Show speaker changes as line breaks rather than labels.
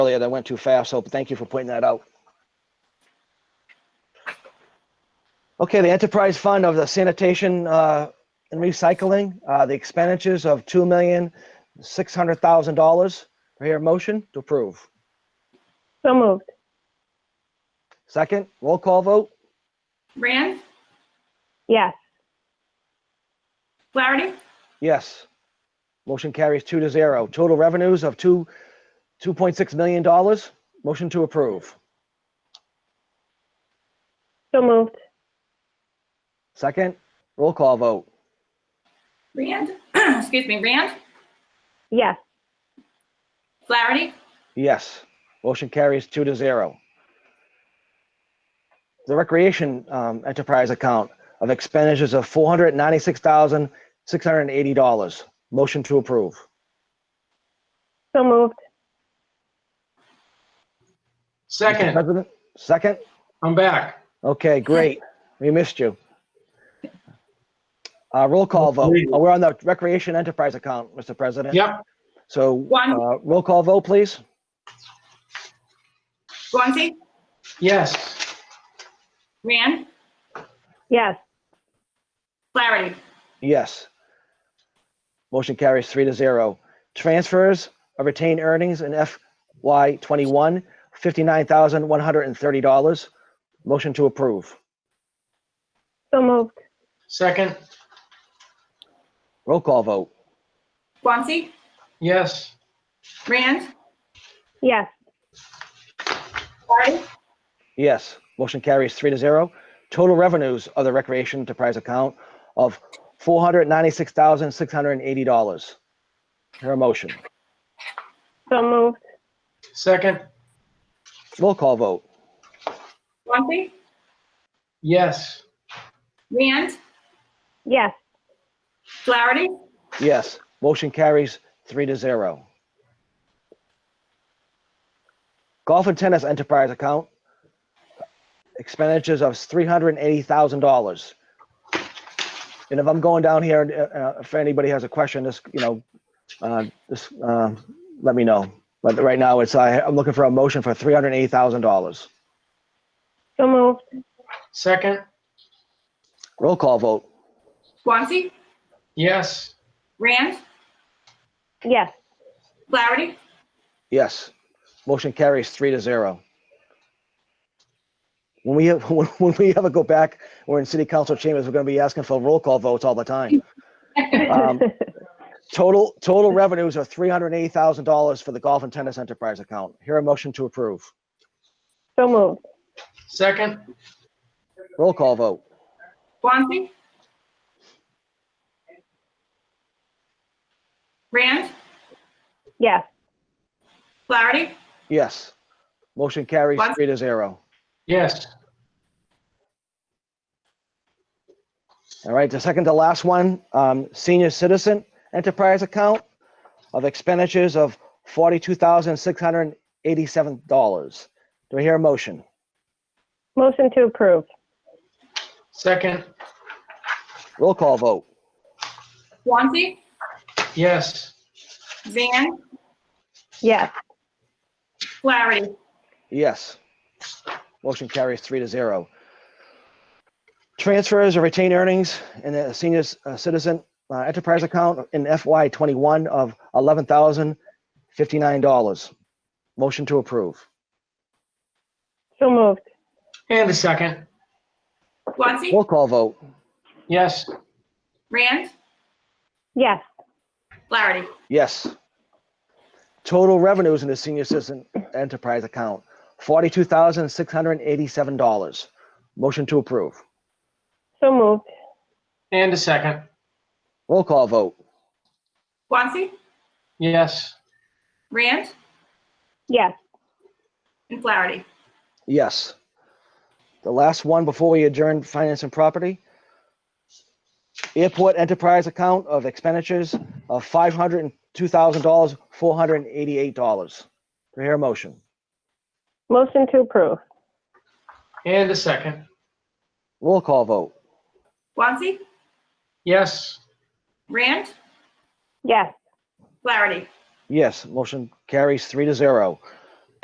earlier that went too fast, so thank you for pointing that out. Okay, the enterprise fund of the sanitation uh, and recycling, uh, the expenditures of two million, six hundred thousand dollars. Do I hear a motion to approve?
So moved.
Second, roll call vote?
Rand,
Yes.
Flaherty,
Yes. Motion carries two to zero. Total revenues of two, two point six million dollars. Motion to approve.
So moved.
Second, roll call vote.
Rand, excuse me, Rand,
Yes.
Flaherty,
Yes. Motion carries two to zero. The recreation um, enterprise account of expenditures of four hundred ninety-six thousand, six hundred and eighty dollars. Motion to approve.
So moved.
Second,
President, second?
I'm back.
Okay, great. We missed you. Uh, roll call vote.
Absolutely.
Oh, We're on the recreation enterprise account, Mr. President.
Yep,
So,
One.
uh, roll call vote, please.
Guanxi,
yes,
Rand,
Yes.
Flaherty,
Yes. Motion carries three to zero. Transfers of retained earnings in FY twenty-one, fifty-nine thousand, one hundred and thirty dollars. Motion to approve.
So moved.
second,
Roll call vote.
Guanxi,
yes,
Rand,
Yes.
Flaherty,
Yes. Motion carries three to zero. Total revenues of the recreation enterprise account of four hundred ninety-six thousand, six hundred and eighty dollars. Hear a motion.
So moved.
second,
Roll call vote.
Guanxi,
yes,
Rand,
Yes.
Flaherty,
Yes. Motion carries three to zero. Golf and tennis enterprise account. Expenditures of three hundred and eighty thousand dollars. And if I'm going down here, uh, uh, if anybody has a question, just, you know, uh, just, uh, let me know. But right now it's, I, I'm looking for a motion for three hundred and eighty thousand dollars.
So moved.
second,
Roll call vote.
Guanxi,
yes,
Rand,
Yes.
Flaherty,
Yes. Motion carries three to zero. When we, have- when when we ever go back, we're in city council chambers, we're gonna be asking for roll call votes all the time. Um, Total, total revenues are three hundred and eighty thousand dollars for the golf and tennis enterprise account. Here a motion to approve.
So moved.
second,
Roll call vote.
Guanxi, Rand,
Yes.
Flaherty,
Yes. Motion carries
What?
three to zero.
yes,
All right, the second to last one, um, senior citizen enterprise account of expenditures of forty-two thousand, six hundred and eighty-seven dollars. Do I hear a motion?
Motion to approve.
second,
Roll call vote.
Guanxi,
yes,
Zan,
Yes.
Flaherty,
Yes. Motion carries three to zero. Transfers or retained earnings in the senior uh, citizen uh, enterprise account in FY twenty-one of eleven thousand fifty-nine dollars. Motion to approve.
So moved.
and a second,
Guanxi,
Roll call vote.
yes,
Rand,
Yes.
Flaherty,
Yes. Total revenues in the senior citizen enterprise account, forty-two thousand, six hundred and eighty-seven dollars. Motion to approve.
So moved.
and a second,
Roll call vote.
Guanxi,
yes,
Rand,
Yes.
and Flaherty.
Yes. The last one before we adjourn finance and property. Airport enterprise account of expenditures of five hundred and two thousand dollars, four hundred and eighty-eight dollars. Do I hear a motion?
Motion to approve.
and a second,
Roll call vote.
Guanxi,
yes,
Rand,
Yes.
Flaherty.
Yes, motion carries three to zero.